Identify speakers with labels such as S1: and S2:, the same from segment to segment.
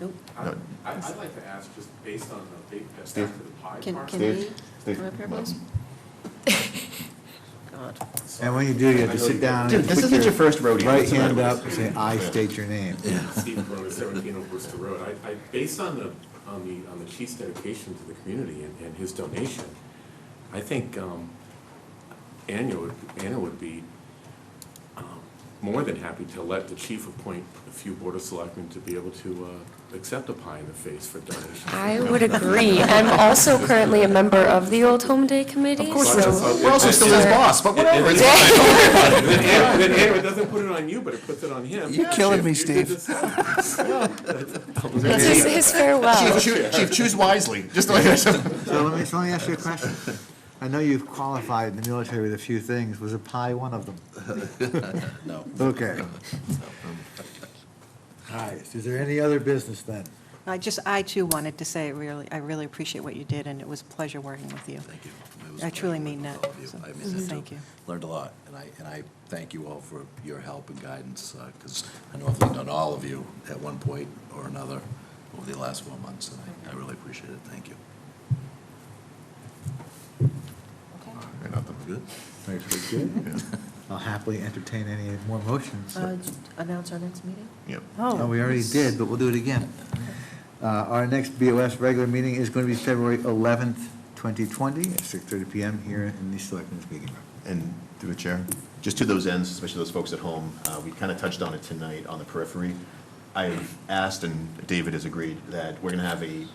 S1: Nope.
S2: I-
S3: No.
S2: I- I'd like to ask, just based on the big, that's back to the pie
S1: Can-
S2: part.
S1: can
S3: Steve?
S1: we
S3: Steve,
S1: come up here,
S3: no.
S1: please? God.
S4: And when you do, you have
S2: I
S4: to
S2: know you-
S4: sit down.
S3: Dude,
S4: and
S3: this
S4: put
S3: isn't your first rodeo.
S4: Right
S3: What's the matter
S4: hand
S3: with
S4: up,
S3: you?
S4: and say, I state your name.
S2: Steve Cronin, seventeen of Worcester Road. I, I, based on the, on the, on the chief's dedication to the community and, and his donation, I think, um, Anna would, Anna would be, um, more than happy to let the chief appoint a few board of selectmen to be able to, uh, accept a pie in the face for donations.
S5: I would agree. I'm also currently a member of the Old Home Day Committee,
S3: Of course,
S5: so.
S3: we're we're also still his boss, but whatever. it's fine.
S2: Then Anna, then Anna doesn't put it on you, but it puts it on him.
S4: You're killing me,
S2: You did this-
S5: That's his his farewell.
S3: Chief, choo- Chief, choose wisely, just like I said.
S4: So let me, so let me ask you a question. I know you've qualified in the military with a few things. Was a pie one of them?
S3: No.
S4: Okay. All right, is there any other business then?
S1: I just, I too wanted to say, really, I really appreciate what you did, and it was a pleasure working with you.
S6: Thank you. It was
S1: I truly
S6: great
S1: mean
S6: working with
S1: that.
S6: all of you.
S1: So, mm,
S6: I mean that, too.
S1: thank you.
S6: Learned a lot, and I, and I thank you all for your help and guidance, because I know I've leaned on all of you at one point or another over the last four months, and I- I really appreciate it. Thank you. Good?
S4: Thanks, we're good. I'll happily entertain any more motions.
S1: Uh, Announce our next meeting?
S3: Yep.
S1: Oh,
S4: No, we already did, but we'll do it again. Uh, Our next BOS regular meeting is going to be February 11th, 2020, at 6:30 PM here in the Selectmen's Meeting Room.
S3: And through the chair, just to those ends, especially those folks at home, uh, we kind of touched on it tonight on the periphery. I've asked, and David has agreed, that we're going to have a,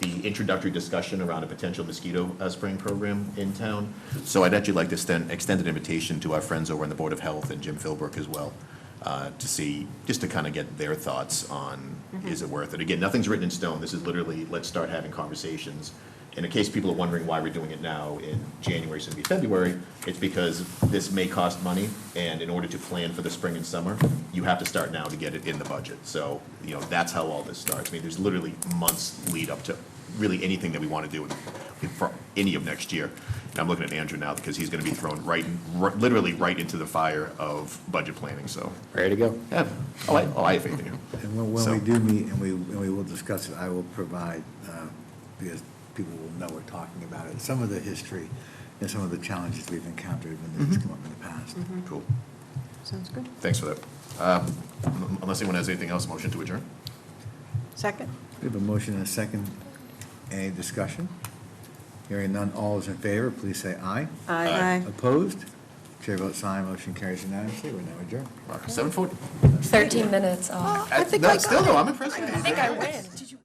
S3: the introductory discussion around a potential mosquito uh, spraying program in town. So I'd actually like to extend, extend an invitation to our friends over on the Board of Health and Jim Philbrook as well, uh, to see, just to kind of get their thoughts on, is it worth it? Again, nothing's written in stone. This is literally, let's start having conversations. And in case people are wondering why we're doing it now in January, so it'll be February, it's because this may cost money, and in order to plan for the spring and summer, you have to start now to get it in the budget. So, you know, that's how all this starts. I mean, there's literally months lead up to really anything that we want to do in- for any of next year. And I'm looking at Andrew now, because he's going to be thrown right, right- literally right into the fire of budget planning, so.
S7: Ready to go.
S3: yeah, Oh, I, oh, I have faith in you.
S4: And when, when
S3: So-
S4: we do meet and we, and we will discuss it, I will provide, uh, because people will know we're talking about it, some of the history and some of the challenges we've encountered when this has come up in the past.
S3: Cool.
S1: Sounds good.
S3: Thanks for that. Um, Unless anyone has anything else, motion to adjourn?
S1: Second?
S4: We have a motion and a second. Any discussion? Hearing none, all is in favor, please say aye.
S1: Aye.
S4: Opposed? Chair votes aye, motion carries unanimously, we're now adjourned.
S3: Seven forty?
S5: 13 minutes off.
S1: I think I got
S3: Still, though, I'm impressed. with you.
S5: I think I win.